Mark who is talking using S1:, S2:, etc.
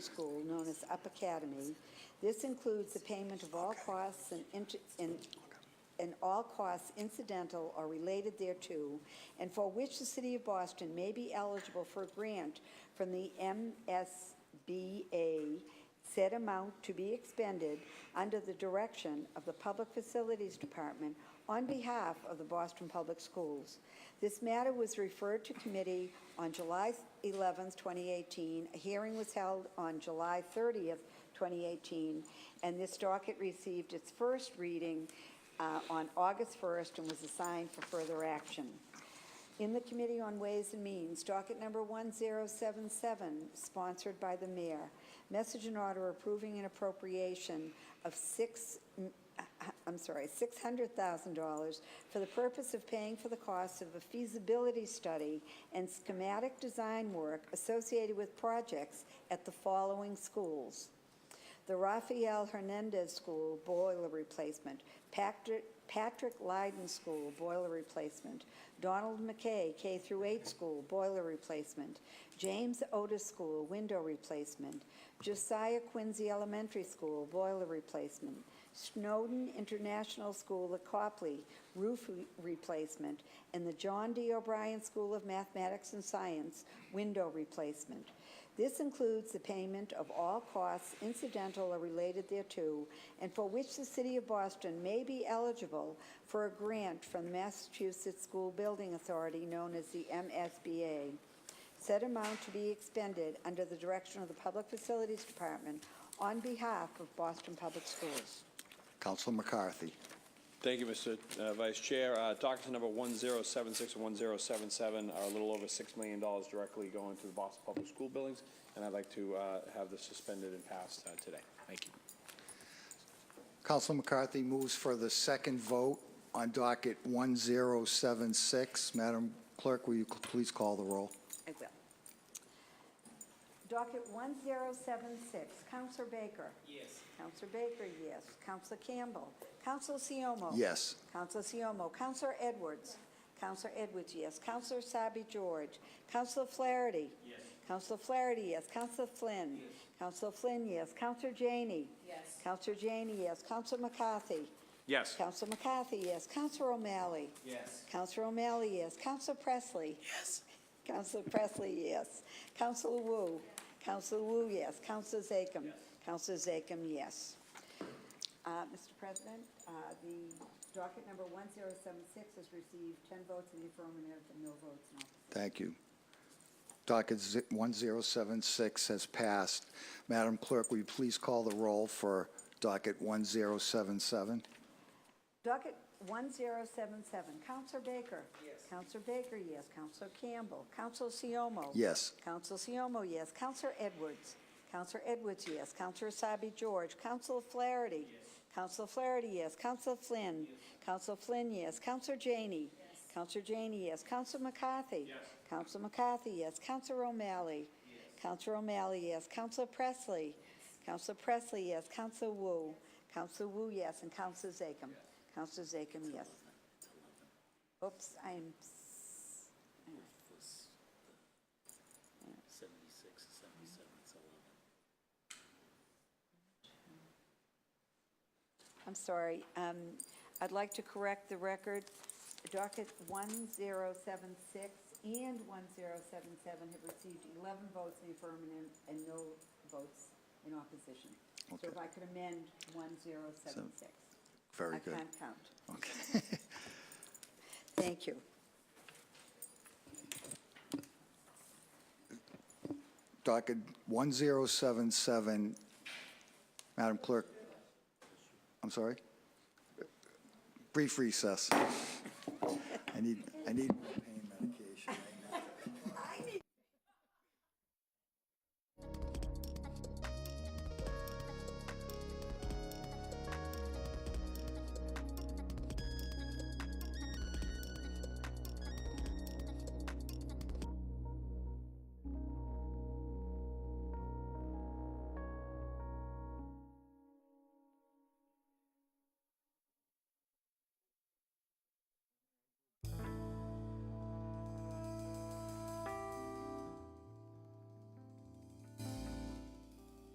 S1: School, known as Up Academy. This includes the payment of all costs and int- and and all costs incidental or related thereto, and for which the city of Boston may be eligible for a grant from the MSBA, said amount to be expended under the direction of the Public Facilities Department on behalf of the Boston Public Schools. This matter was referred to committee on July 11th, 2018. A hearing was held on July 30th, 2018, and this docket received its first reading uh, on August 1st and was assigned for further action. In the Committee on Ways and Means, docket number 1077, sponsored by the mayor, message and order approving an appropriation of six, uh, I'm sorry, $600,000 for the purpose of paying for the cost of a feasibility study and schematic design work associated with projects at the following schools the Rafael Hernandez School boiler replacement, Patrick Patrick Lyden School boiler replacement, Donald McKay K through 8 School boiler replacement, James Otis School window replacement, Josiah Quincy Elementary School boiler replacement, Snowden International School at Copley roof re- replacement, and the John D. O'Brien School of Mathematics and Science window replacement. This includes the payment of all costs incidental or related thereto, and for which the City of Boston may be eligible for a grant from the Massachusetts School Building Authority, known as the MSBA. Said amount to be expended under the direction of the Public Facilities Department on behalf of Boston Public Schools.
S2: Council McCarthy.
S3: Thank you, Mr. uh, Vice Chair. Uh, Docket number 1076 and 1077 are uh, a little over $6 million directly going to the Boston Public School buildings, and I'd like to uh, have this suspended and passed uh, today. Thank you.
S2: Council McCarthy moves for the second vote on docket 1076. Madam Clerk, will you cl- please call the roll?
S1: I will. Docket 1076, Counselor Baker.
S4: Yes.
S1: Counselor Baker, yes. Counselor Campbell. Counselor Siomo.
S2: Yes.
S1: Counselor Siomo. Counselor Edwards. Counselor Edwards, yes. Counselor Sabi George. Counselor Flaherty.
S4: Yes.
S1: Counselor Flaherty, yes. Counselor Flynn.
S4: Yes.
S1: Counselor Flynn, yes. Counselor Janey.
S4: Yes.
S1: Counselor Janey, yes. Counselor McCarthy.
S3: Yes.
S1: Counselor McCarthy, yes. Counselor O'Malley.
S4: Yes.
S1: Counselor O'Malley, yes. Counselor Presley.
S4: Yes.
S1: Counselor Presley, yes. Counselor Wu? Counselor Wu, yes. Counselor Zachem?
S4: Yes.
S1: Counselor Zachem, yes. Uh, Mr. President, uh, the docket number 1076 has received 10 votes in the affirmative and no votes in opposition.
S2: Thank you. Docket zi- 1076 has passed. Madam Clerk, will you please call the roll for docket 1077?
S1: Docket 1077, Counselor Baker.
S4: Yes.
S1: Counselor Baker, yes. Counselor Campbell. Counselor Siomo.
S2: Yes.
S1: Counselor Siomo, yes. Counselor Edwards. Counselor Edwards, yes. Counselor Sabi George. Counselor Flaherty. Counselor Flaherty, yes. Counselor Flynn. Counselor Flynn, yes. Counselor Janey. Counselor Janey, yes. Counselor McCarthy.
S4: Yes.
S1: Counselor McCarthy, yes. Counselor O'Malley. Counselor O'Malley, yes. Counselor Presley. Counselor Presley, yes. Counselor Wu. Counselor Wu, yes. And Counselor Zachem. Counselor Zachem, yes. Oops, I'm, s-
S5: Seventy-six, seventy-seven, it's eleven.
S1: I'm sorry. Um, I'd like to correct the record. Docket 1076 and 1077 have received 11 votes in the affirmative and no votes in opposition. So
S2: Okay.
S1: if I could amend 1076.
S2: Very
S1: I
S2: good. Oh.
S1: can't count.
S2: Okay.
S1: Thank you.
S2: Docket 1077, Madam Clerk, I'm sorry? Brief recess. I need, I need,